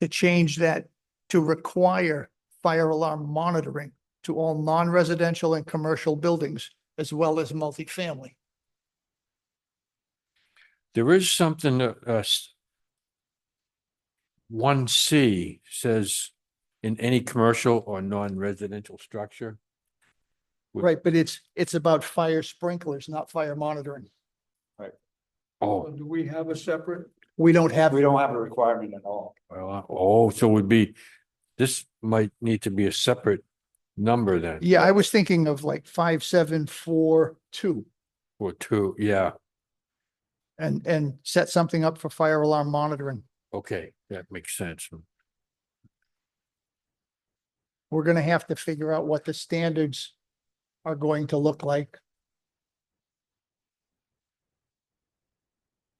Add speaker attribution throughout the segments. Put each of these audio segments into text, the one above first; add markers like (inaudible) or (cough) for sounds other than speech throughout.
Speaker 1: to change that to require fire alarm monitoring to all non-residential and commercial buildings as well as multifamily.
Speaker 2: There is something that, uh, one C says in any commercial or non-residential structure. Would-
Speaker 1: Right, but it's, it's about fire sprinklers, not fire monitoring.
Speaker 2: Oh,
Speaker 3: Do we have a separate?
Speaker 1: We don't have,
Speaker 3: We don't have a requirement at all.
Speaker 2: well, uh, oh, so it would be, this might need to be a separate number then,
Speaker 1: yeah, I was thinking of like five, seven, four, two.
Speaker 2: or two, yeah,
Speaker 1: and, and set something up for fire alarm monitoring.
Speaker 2: okay, that makes sense.
Speaker 1: We're gonna have to figure out what the standards are going to look like.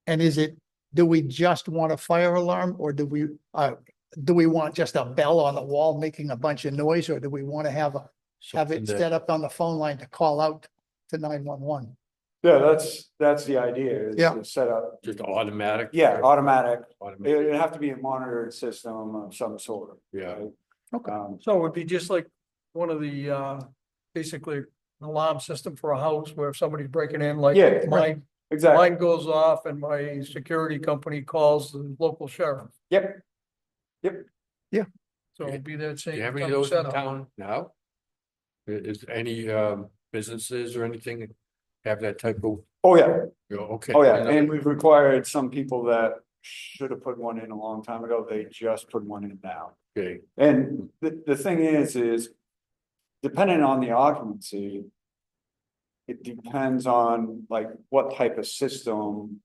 Speaker 1: And is it, do we just want a fire alarm or do we, uh, do we want just a bell on the wall making a bunch of noise? Or do we want to have, a have
Speaker 2: Something
Speaker 1: it
Speaker 2: that-
Speaker 1: set up on the phone line to call out to nine one one?
Speaker 3: Yeah, that's, that's the idea. is
Speaker 1: Yeah.
Speaker 3: to Set up,
Speaker 2: Just automatic.
Speaker 3: yeah, automatic.
Speaker 2: Automatic,
Speaker 3: It'd have to be a monitored system of some sort.
Speaker 2: Yeah,
Speaker 1: Okay.
Speaker 3: Um,
Speaker 4: So it would be just like one of the, uh, basically an alarm system for a house where if somebody's breaking in, like
Speaker 3: Yeah, right.
Speaker 4: mine,
Speaker 3: Exactly.
Speaker 4: mine goes off and my security company calls the local sheriff.
Speaker 3: Yep.
Speaker 4: So it'd be that
Speaker 2: do
Speaker 4: same.
Speaker 2: you have any of
Speaker 4: kind of
Speaker 2: those in
Speaker 4: setup.
Speaker 2: town now? I- Is any, um, businesses or anything that have that type of,
Speaker 3: Oh, yeah.
Speaker 2: you know, okay.
Speaker 3: Oh, yeah.
Speaker 2: another-
Speaker 3: And we've required some people that should have put one in a long time ago. They just put one in now.
Speaker 2: Okay,
Speaker 3: And the, the thing is, is depending on the occupancy, it depends on like what type of system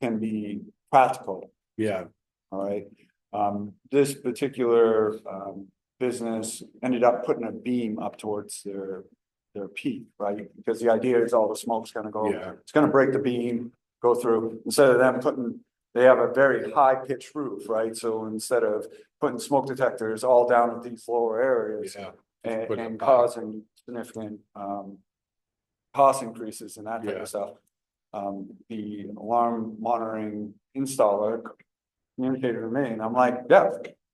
Speaker 3: can be practical,
Speaker 2: yeah,
Speaker 3: all right? Um, this particular, um, business ended up putting a beam up towards their, their peak, right? Because the idea is all the smoke's gonna go
Speaker 2: yeah,
Speaker 3: it's gonna break the beam, go through, instead of them putting, they have a very high pitched roof, right? So instead of putting smoke detectors all down at these lower areas
Speaker 2: yeah.
Speaker 3: and,
Speaker 2: put
Speaker 3: and
Speaker 2: them high.
Speaker 3: causing significant, um, cost increases and that type
Speaker 2: Yeah.
Speaker 3: of stuff. Um, the alarm monitoring installer communicated to me and I'm like, yeah,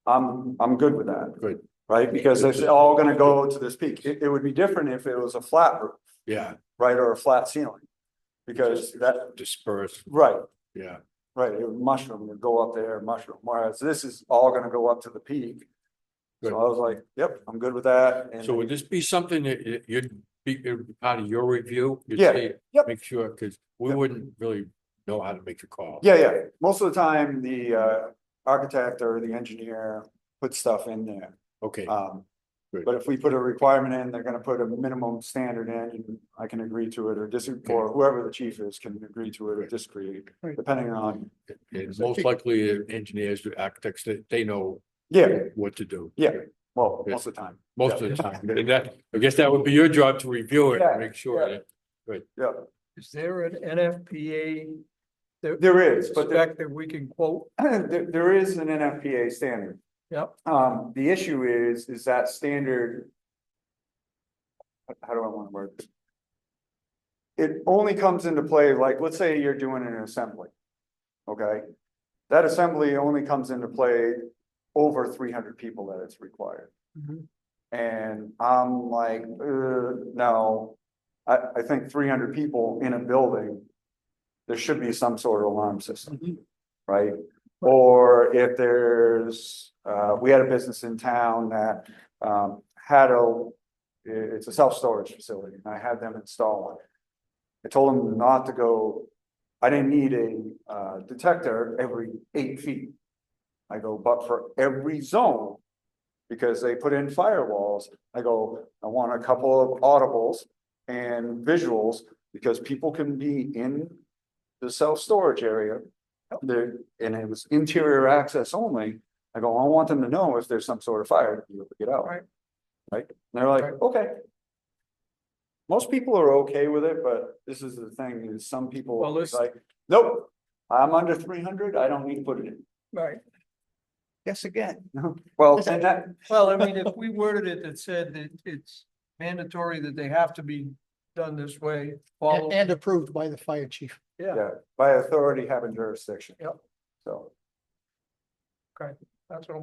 Speaker 3: I'm, I'm good with that.
Speaker 2: Good.
Speaker 3: Right? Because it's all gonna go to this peak. It, it would be different if it was a flat roof
Speaker 2: Yeah,
Speaker 3: right, or a flat ceiling. Because that,
Speaker 2: disperse,
Speaker 3: right,
Speaker 2: yeah,
Speaker 3: right, it would mushroom, would go up there, mushroom, whereas this is all gonna go up to the peak. So
Speaker 2: Good.
Speaker 3: I was like, yep, I'm good with that, and
Speaker 2: so would this be something that y- you'd be, it'd be part of your review? You'd
Speaker 3: Yeah,
Speaker 2: say,
Speaker 3: yep.
Speaker 2: Make sure, because we
Speaker 3: Yep.
Speaker 2: wouldn't really know how to make a call.
Speaker 3: yeah, yeah, most of the time, the uh architect or the engineer puts stuff in there.
Speaker 2: Okay,
Speaker 3: Um,
Speaker 2: Good.
Speaker 3: but if we put a requirement in, they're gonna put a minimum standard in, and I can agree to it or disagree,
Speaker 2: Okay.
Speaker 3: or whoever the chief is can agree to it or disagree,
Speaker 1: Right.
Speaker 3: depending on,
Speaker 2: and most likely uh, engineers, architects, they, they know
Speaker 3: yeah,
Speaker 2: what to do.
Speaker 3: Yeah. well,
Speaker 2: Yeah.
Speaker 3: most of the time,
Speaker 2: Most of
Speaker 3: Yeah.
Speaker 2: the time, and that, I guess that would be your job to review it,
Speaker 3: Yeah,
Speaker 2: and make sure
Speaker 3: yeah.
Speaker 2: that,
Speaker 3: yeah,
Speaker 4: Is there an NFPA?
Speaker 3: there is, but there-
Speaker 4: Spec that we can quote?
Speaker 3: (clears throat) There, there is an NFPA standard.
Speaker 4: Yep.
Speaker 3: Um, the issue is, is that standard. How do I wanna word? this? It only comes into play, like, let's say you're doing an assembly. Okay? That assembly only comes into play over three hundred people that it's required. And I'm like, uh, no, I, I think three hundred people in a building. There should be some sort of alarm system, right? Or if there's, uh, we had a business in town that, um, had a, i- it's a self-storage facility and I had them install it. I told them not to go, I didn't need a, uh, detector every eight feet. I go, but for every zone, because they put in firewalls. I go, I want a couple of audibles and visuals because people can be in the self-storage area. There, and it was interior access only. I go, I want them to know if there's some sort of fire to be able to get out.
Speaker 4: Right.
Speaker 3: Right? And they're like,
Speaker 4: Right.
Speaker 3: okay. Most people are okay with it, but this is the thing is some people
Speaker 4: Well,
Speaker 3: are
Speaker 4: listen-
Speaker 3: like, nope, I'm under three hundred. I don't need to put it in.
Speaker 4: Right.
Speaker 1: Yes, again.
Speaker 3: Well, and that,
Speaker 4: Well, I mean, if we worded it that said that it's mandatory that they have to be done this way, follow.
Speaker 1: And and approved by the fire chief.
Speaker 4: Yeah,
Speaker 3: yeah, by authority having jurisdiction.
Speaker 4: Yep.
Speaker 3: So.
Speaker 4: that's what I'm